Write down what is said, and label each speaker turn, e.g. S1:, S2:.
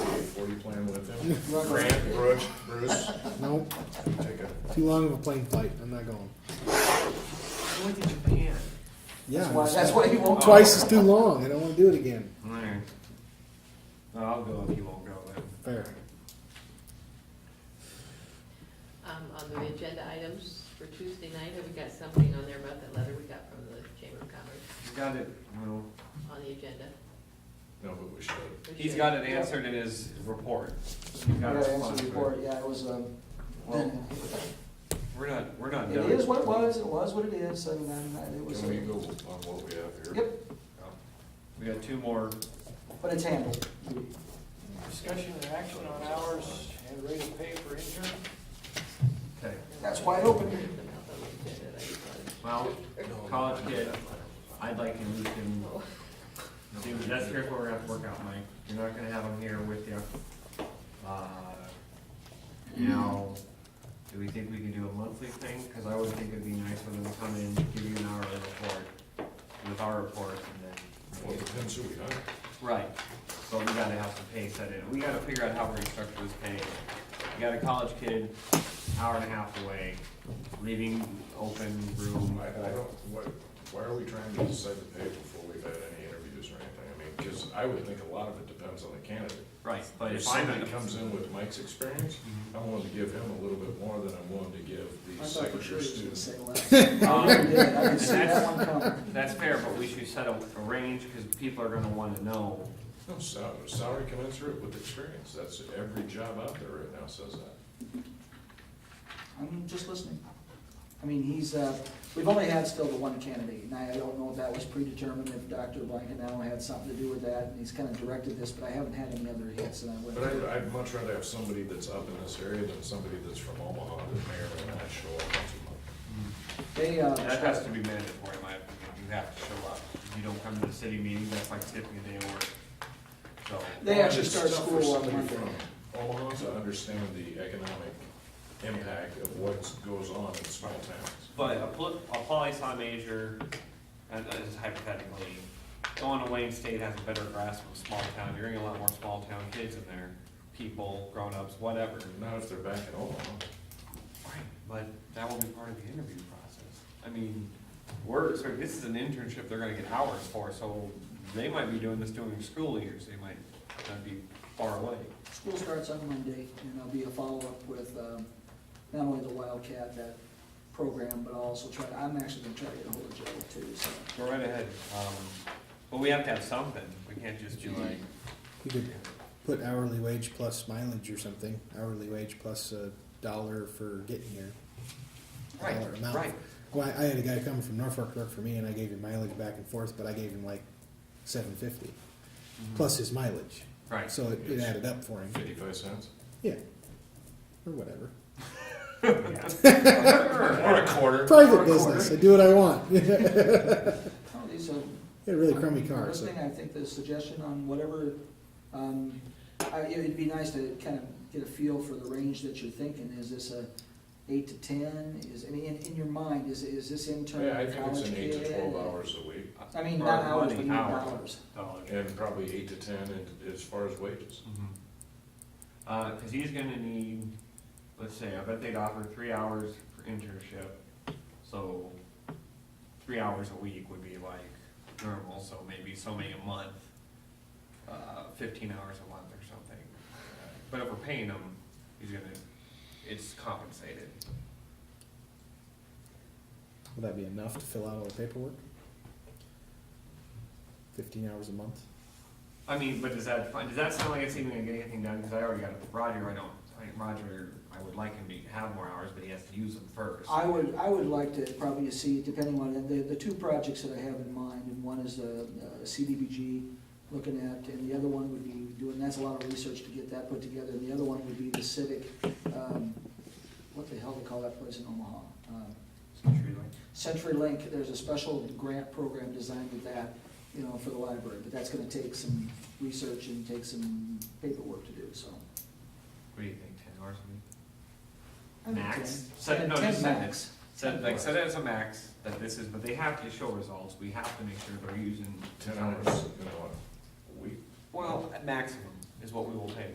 S1: Grant, Bruce, Bruce,
S2: Nope,
S1: take a,
S2: too long of a plane flight, I'm not going.
S3: I went to Japan.
S2: Yeah,
S3: That's why, that's why you won't.
S2: twice is too long, I don't wanna do it again.
S4: Alright. Well, I'll go if you won't go then.
S2: Fair.
S5: Um, on the agenda items for Tuesday night, have we got something on there about that letter we got from the Chamber of Commerce
S4: He's got it, well,
S5: on the agenda?
S1: no, but we should.
S5: We
S4: he's
S5: should-
S4: got it answered in his report. He's
S3: Yeah,
S4: got a
S3: that's
S4: response
S3: the
S4: to it.
S3: report, yeah, it was, um,
S4: Well, We're not, we're not
S3: it
S4: done.
S3: is what it was, it was what it is, and then uh, it was,
S1: Can we go on what we have here?
S3: yep,
S4: We got two more.
S3: but it's handled.
S6: Discussion and action on hours and rate of pay for intern.
S4: Okay.
S3: That's wide open.
S5: About the agenda, I just wanted-
S4: Well, college kid, I'd like to move him.
S5: Oh,
S4: See, that's here's what we're gonna have to work out, Mike. You're not gonna have him here with you. Uh, Now, do we think we can do a monthly thing? Cause I would think it'd be nice for them to come in, give you an hour of report with our report
S1: Well,
S4: and
S1: it
S4: then.
S1: depends who we hire.
S4: Right, so we gotta have some pay set in, we gotta figure out how we're gonna structure this pay. You got a college kid, hour and a half away, leaving open room.
S1: I, I don't, why, why are we trying to decide the pay before we've had any interviews or anything? I mean, because I would think a lot of it depends on the candidate.
S4: Right, but
S1: If
S4: if I'm. Mm-hmm.
S1: somebody comes in with Mike's experience, I'm willing to give him a little bit more than I'm willing to give the second-year student.
S4: Um,
S3: I can see Oh, that one coming.
S4: That's fair, but we should set a, a range, cause people are gonna wanna know.
S1: No, sal- salary commensurate with experience, that's, every job out there right now says that.
S3: I'm just listening. I mean, he's, uh, we've only had still the one candidate, and I don't know if that was predetermined, if Dr. Blankenau had something to do with that, and he's kind of directed this, but I haven't had any other hits, and I
S1: But
S3: wouldn't.
S1: I'd, I'd much rather have somebody that's up in this area than somebody that's from Omaha that may or may not show up once a month.
S3: They, uh,
S4: That has to be mandatory, in my opinion, you have to show up. If you don't come to the city meeting, that's like tipping a day of work. So,
S3: They
S1: Well,
S3: actually
S1: it's
S3: start
S1: tough for
S3: school on
S1: somebody
S3: Monday.
S1: from Omaha to understand the economic impact of what goes on in small towns.
S4: but a poli, a poli sci major, and this is hypothetically, going to Wayne State has a better grasp of small town, you're gonna get a lot more small town kids in there, people, grown-ups, whatever.
S1: Not if they're back in Omaha.
S4: Right, but that will be part of the interview process. I mean, we're, so this is an internship they're gonna get hours for, so they might be doing this during school years, they might not be far away.
S3: School starts on Monday, and there'll be a follow-up with um, not only the Wildcat, that program, but I'll also try, I'm actually gonna try to get ahold of Joe too, so.
S4: Go right ahead, um, but we have to have something, we can't just do like,
S2: You could put hourly wage plus mileage or something, hourly wage plus a dollar for getting here. A
S4: right,
S2: dollar amount.
S4: right.
S2: Well, I I had a guy coming from Norfolk work for me and I gave him mileage back and forth, but I gave him like seven fifty, plus his mileage.
S4: mm-hmm. Right,
S2: So it, it added up for him,
S1: Fifty-five cents?
S2: yeah, or whatever.
S1: Or a quarter.
S2: Private business, I do what I want. I had
S3: Oh, these are-
S2: a really crummy car, so.
S3: Listening, I think the suggestion on whatever, um, I, it'd be nice to kind of get a feel for the range that you're thinking. Is this a eight to ten? Is, I mean, in, in your mind, is, is this intern
S1: Yeah, I
S3: a
S1: think it's
S3: college
S1: an eight to twelve
S3: kid?
S1: hours a week,
S3: I mean, not
S4: Or
S3: hours,
S4: money,
S3: but even
S4: hours.
S3: dollars.
S4: Dollars.
S1: and probably eight to ten in- as far as wages.
S4: Mhm. Uh, cause he's gonna need, let's say, I bet they'd offer three hours for internship, so three hours a week would be like normal, so maybe so many a month, uh, fifteen hours a month or something. But if we're paying him, he's gonna, it's compensated.
S2: Will that be enough to fill out all the paperwork? Fifteen hours a month?
S4: I mean, but does that, does that sound like it's even gonna get anything done, cause I already got Roger, I don't, I think Roger, I would like him to have more hours, but he has to use them first.
S3: I would, I would like to probably see, depending on, the, the two projects that I have in mind, and one is uh, a CDBG looking at, and the other one would be doing, that's a lot of research to get that put together, and the other one would be the civic, um, what the hell they call that place in Omaha? Um,
S4: Century Link.
S3: CenturyLink, there's a special grant program designed with that, you know, for the library, but that's gonna take some research and take some paperwork to do, so.
S4: What do you think, ten hours a
S3: I
S4: week?
S3: think
S4: Max?
S3: ten.
S4: Set, no,
S3: Ten
S4: just set it,
S3: max.
S4: set, like, set it as a max, that this is, but they have to show results, we have to make sure they're using.
S1: Ten hours, you know, a week.
S4: Well, a maximum is what we will pay.